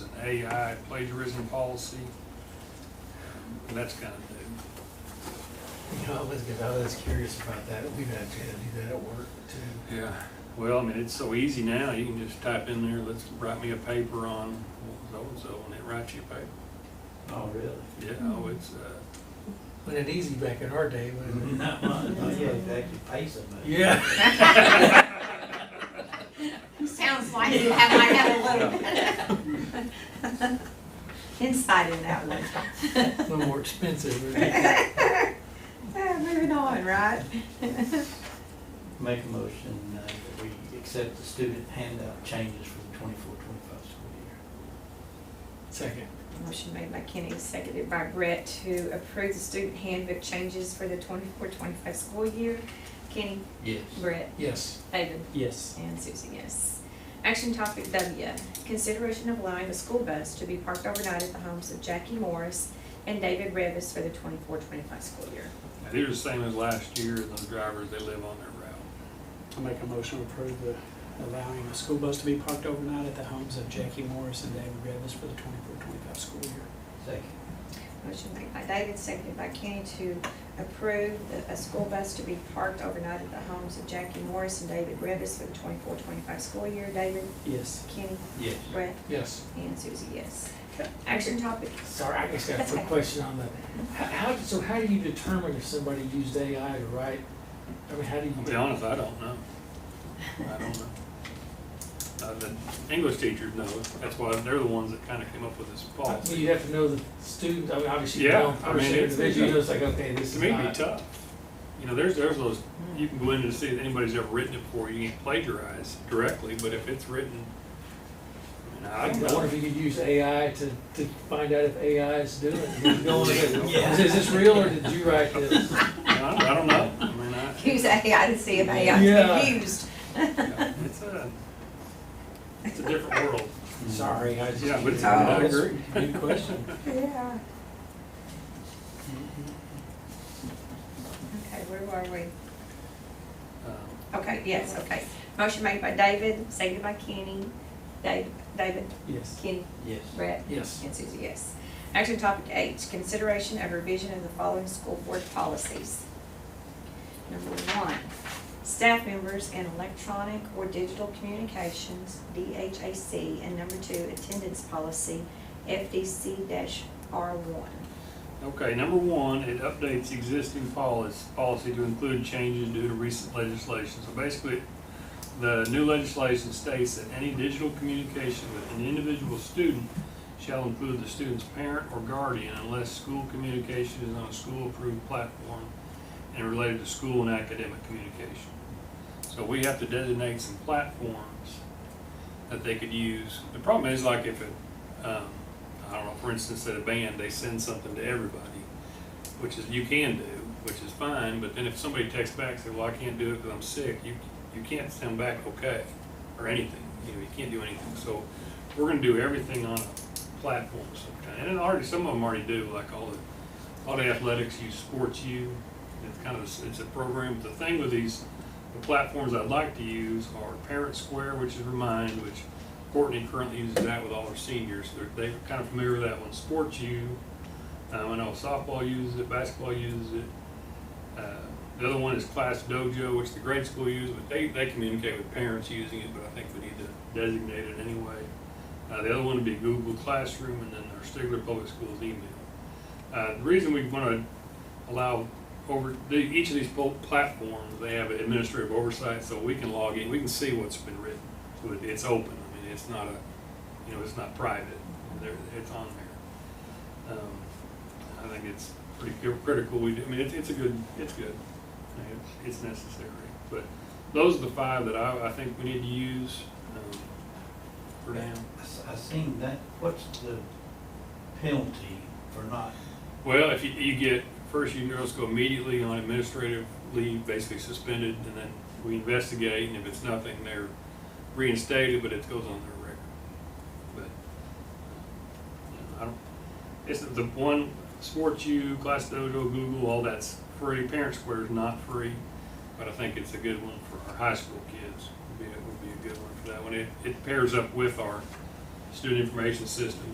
AI plagiarism policy. And that's kind of new. You know, I was, I was curious about that. We've had to do that at work too. Yeah. Well, I mean, it's so easy now. You can just type in there, let's write me a paper on so-and-so, and it writes you a paper. Oh, really? Yeah, oh, it's, uh, Wasn't it easy back in our day, wasn't Mm-hmm. it? Not mine. Oh, Yeah, they actually pay somebody. Yeah. Sounds like you have, I have a little insight in that one. A little more expensive, really. Ah, Moving on, right? Make a motion uh, that we accept the student handout changes for the twenty-four, twenty-five school Second. Motion made by Kenny, seconded by Brett to approve the student handbook changes for the 24-25 school year. Kenny, year. Brett, Yes. David, Yes. and Susie, yes. Action topic W, consideration of allowing the school bus to be parked overnight at the homes of Jackie Morris and David Revis for the 24-25 school year. they're the same as last year, and those drivers, they live on their route. I make a motion to approve the allowing a school bus to be parked overnight at the homes of Jackie Morris and David Revis for the 24-25 school year. Second. Motion made by David, seconded by Kenny to approve the- a school bus to be parked overnight at the homes of Jackie Morris and David Revis for the 24-25 school year. David, Yes. Kenny, Yes. Brett, Yes. and Susie, yes. Action topic, Sorry, I just got a quick question on that. How, how, so how do you determine if somebody used AI to write? I mean, how do you? I'll be honest, I don't know. I don't know. Uh, the English teachers know, that's why they're the ones that kind of came up with this Well, policy. you have to know the student, I mean, obviously you Yeah, don't I mean, understand it's- the vision, you know, it's like, okay, this It is may be not. tough. You know, there's, there's those, you can go in and see if anybody's ever written it before, you can't plagiarize directly, but if it's written, I I mean, I wonder if don't know. you could use AI to, to find out if AI is doing it. Going in. Yeah. Is is this real or did you write this? I don't know, I mean, I, who's AI to see if AI Yeah. is confused? it's a, it's a different world. Mm. Sorry, I just. Oh, Yeah, but it's- I agree. Good question. Yeah. Okay, where are we? Um, Okay, yes, okay. Motion made by David, seconded by Kenny. Dave, David, Yes. Kenny, Yes. Brett, Yes. And Susie, yes. Action topic H, consideration of revision of the following school board policies. Number one, staff members and electronic or digital communications, DHAC, and number two, attendance policy, FDC R one. Okay, number one, it updates existing policy, policy to include changes due to recent legislation. So basically, the new legislation states that any digital communication with an individual student shall include the student's parent or guardian unless school communication is on a school-approved platform and related to school and academic communication. So we have to designate some platforms that they could use. The problem is like if it, um, I don't know, for instance, at a band, they send something to everybody, which is, you can do, which is fine, but then if somebody texts back, say, well, I can't do it because I'm sick, you, you can't send back okay, or anything, you know, you can't do anything, so we're gonna do everything on a platform of some kind, and then already, some of them already do, like all the, all the athletics use Sports U, it's kind of, a- it's a program, the thing with these, the platforms I'd like to use are Parent Square, which is Remind, which Courtney currently uses that with all her seniors. They're, they're kind of familiar with that one. Sports U, um, I know softball uses it, basketball uses it. Uh, The other one is Class Dojo, which the grade school uses, but they, they communicate with parents using it, but I think we need to designate it anyway. Uh, the other one would be Google Classroom, and then our Stigler Public Schools email. Uh, the reason we want to allow over, the- each of these pol- platforms, they have administrative oversight, so we can log in, we can see what's been written. So it- it's open, I mean, it's not a, you know, it's not private, there, it's on there. Um, I think it's pretty cri- critical, we, do- I mean, it's, it's a good, it's good, I mean, it's- it's necessary. But those are the five that I, I think we need to use, um, for now. I s- I seen that, what's the penalty for not, Well, if you, you get, first you just go immediately on administrative leave, basically suspended, and then we investigate, and if it's nothing, they're reinstated, but it goes on their record. But, you know, I don't, it's the one, Sports U, Class Dojo, Google, all that's free, Parent Square is not free, but I think it's a good one for our high school kids, would be, would be a good one for that one. It, it pairs up with our student information system,